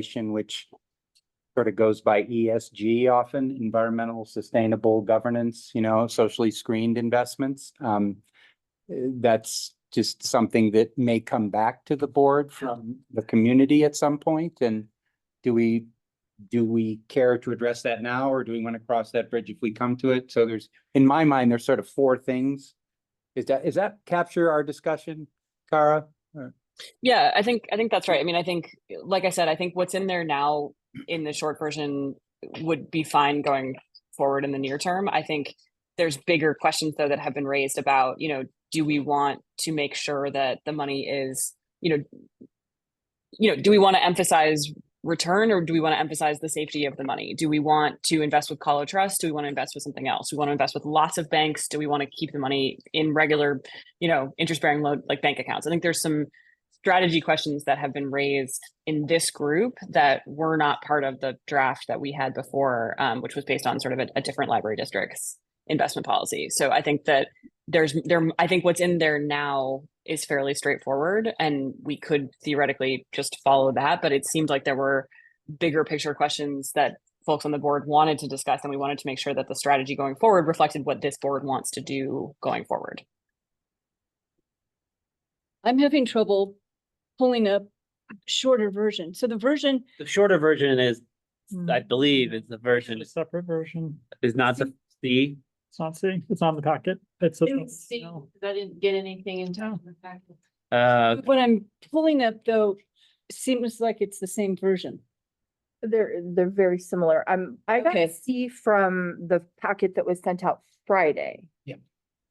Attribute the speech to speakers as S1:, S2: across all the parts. S1: organization which sort of goes by ESG often, environmental, sustainable governance, you know, socially screened investments. Um, eh, that's just something that may come back to the board from the community at some point, and do we, do we care to address that now, or do we want to cross that bridge if we come to it? So there's, in my mind, there's sort of four things. Is that, is that capture our discussion, Kara?
S2: Yeah, I think I think that's right. I mean, I think like I said, I think what's in there now in the short version would be fine going forward in the near term. I think there's bigger questions though that have been raised about, you know, do we want to make sure that the money is, you know, you know, do we want to emphasize return or do we want to emphasize the safety of the money? Do we want to invest with Colo Trust? Do we want to invest with something else? Do we want to invest with lots of banks? Do we want to keep the money in regular, you know, interest-bearing loan like bank accounts? I think there's some strategy questions that have been raised in this group that were not part of the draft that we had before, um, which was based on sort of a, a different library district's investment policy. So I think that there's there I think what's in there now is fairly straightforward and we could theoretically just follow that, but it seemed like there were bigger picture questions that folks on the board wanted to discuss and we wanted to make sure that the strategy going forward reflected what this board wants to do going forward.
S3: I'm having trouble pulling up shorter version. So the version,
S4: The shorter version is, I believe, is the version
S5: A separate version.
S4: is not the C.
S5: It's not C. It's not in the packet. It's. a- No.
S6: I didn't get anything in time.
S4: Uh,
S3: what I'm pulling up though, seems like it's the same version.
S6: They're, they're very similar. Um, I got
S3: Okay.
S6: C from um, the packet that was sent out Friday.
S5: Yeah.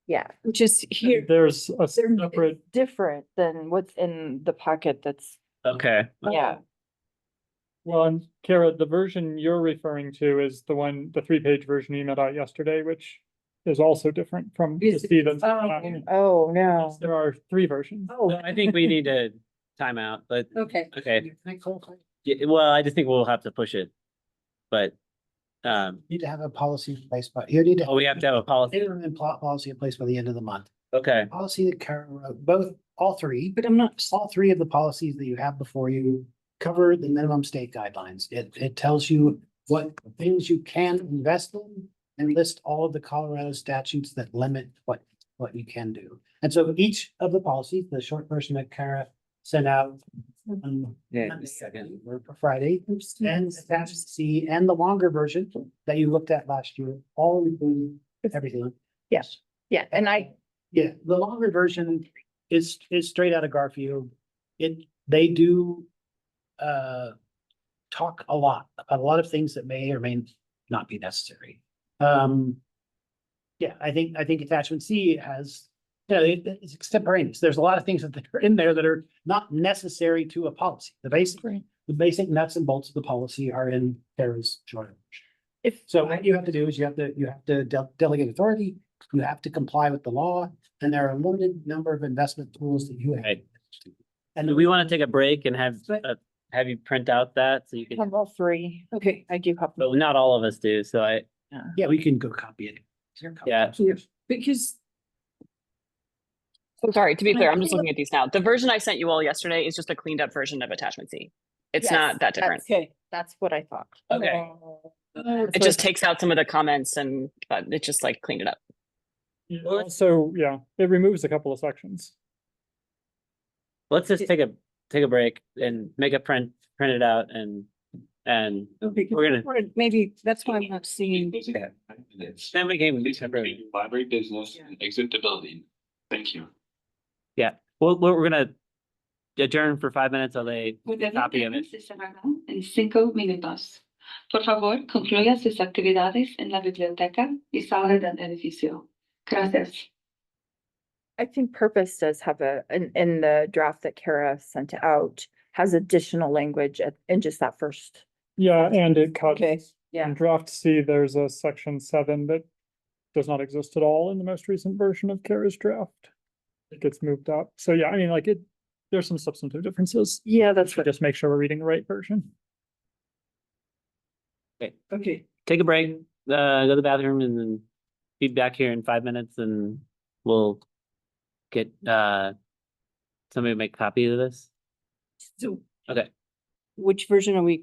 S6: Yeah,
S3: Which is here,
S5: There's a
S6: they're it's
S5: separate,
S6: different than what's in the packet that's,
S4: okay,
S6: yeah.
S5: well, and Kara, the version you're referring to is the one, the three-page version you emailed out yesterday, which is also different from the
S3: Is-
S5: C that's.
S3: oh,
S6: Oh, no.
S5: There are three versions.
S4: So I think we need to time out, but,
S3: okay.
S4: okay, Yeah, well, I just think we'll have to push it. But, um,
S7: Need to have a policy in place, but you need to.
S4: oh, we have to have a policy,
S7: Minimum pol- policy in place by the end of the month.
S4: okay,
S7: Policy that Karen wrote, both, all three,
S3: But I'm not,
S7: all three of the policies that you have before you cover the minimum state guidelines. It, it tells you what things you can invest in and list all of the Colorado statutes that limit what, what you can do. And so each of the policies, the short version that Kara sent out on
S4: yeah,
S7: Monday, I
S4: second,
S7: believe, or Friday, and attached C and the longer version that you looked at last year, all including everything. Yes.
S6: Yeah, and I,
S7: Yeah, the longer version is, is straight out of Garfield. It, they do, uh, talk a lot, about a lot of things that may or may not be necessary. Um, yeah, I think, I think attachment C has, you know, it- it's extemporaneous. There's a lot of things that are in there that are not necessary to a policy. The basic, the basic nuts and bolts of the policy are in Kara's short version.
S6: if,
S7: So what you have to do is you have to, you have to de- delegate authority, you have to comply with the law, and there are a limited number of investment tools that you have.
S4: Right.
S7: And
S4: Do we want to take a break and have,
S3: But-
S4: uh, have you print out that, so you
S6: I
S4: can,
S6: have all three,
S3: okay.
S6: I do have.
S4: but not all of us do, so I,
S7: Yeah, we can go copy it.
S4: Yeah.
S3: Because
S2: So sorry, to be
S3: Can I
S2: clear, I'm just
S3: pull
S2: looking at these now. The version I sent you all yesterday is just a cleaned up version of attachment C. It's
S6: Yes,
S2: not that different.
S3: Okay,
S6: That's what I thought.
S4: okay,
S6: That's
S2: It
S6: what
S2: just
S6: I-
S2: takes out some of the comments and uh, it just like cleaned it up.
S5: It Also, yeah, it removes a couple of sections.
S4: let's just take a, take a break and make a print, print it out and, and
S3: okay, 'cause
S4: we're gonna,
S3: we're- maybe that's why I'm not seeing.
S4: then we can.
S8: Library business, and exit the building. Thank you.
S4: Well, we're we're gonna adjourn for five minutes while they
S9: Podemos
S4: copy of it.
S9: se cerrará en cinco minutos. Por favor, concluya sus actividades en la biblioteca y salga del edificio. Gracias.
S6: I think purpose does have a, in, in the draft that Kara sent out, has additional language at- in just that first.
S5: Yeah, and it cuts.
S3: Okay,
S6: yeah.
S5: In draft C, there's a section seven that does not exist at all in the most recent version of Kara's draft. It gets moved up. So yeah, I mean, like it, there's some substantive differences.
S6: Yeah, that's
S5: So just make sure we're reading the right version.
S3: okay.
S4: Take a break, uh, go to the bathroom and then be back here in five minutes and we'll get, uh, somebody to make copy of this.
S3: So
S4: Okay.
S3: which version are we